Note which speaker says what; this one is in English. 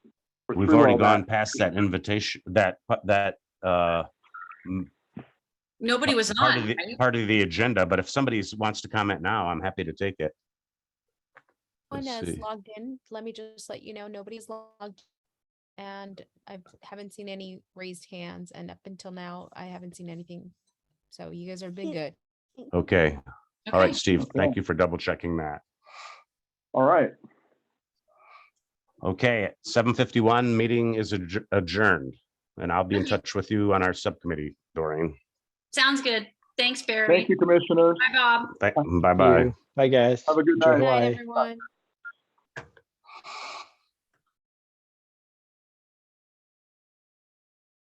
Speaker 1: We've
Speaker 2: through
Speaker 1: already
Speaker 2: all that.
Speaker 1: gone past that invitation, that, that, uh,
Speaker 3: Nobody was
Speaker 1: part of
Speaker 3: on,
Speaker 1: the,
Speaker 3: right?
Speaker 1: part of the agenda, but if somebody wants to comment now, I'm happy to take it.
Speaker 4: One
Speaker 1: Let's
Speaker 4: is
Speaker 1: see.
Speaker 4: logged in. Let me just let you know, nobody's logged. And I haven't seen any raised hands and up until now, I haven't seen anything. So you guys are big good.
Speaker 1: Okay, all
Speaker 3: Okay.
Speaker 1: right, Steve, thank
Speaker 2: Okay.
Speaker 1: you for double checking that.
Speaker 2: All right.
Speaker 1: Okay, seven fifty-one, meeting is adj- adjourned, and I'll be in
Speaker 3: Okay.
Speaker 1: touch with you on our subcommittee, Doreen.
Speaker 3: Sounds good. Thanks, Barry.
Speaker 2: Thank you, commissioners.
Speaker 3: Bye, Bob.
Speaker 1: Thank- Bye-bye.
Speaker 5: Bye, guys.
Speaker 2: Have a good night.
Speaker 5: Enjoy
Speaker 4: Good night,
Speaker 5: Hawaii.
Speaker 4: everyone.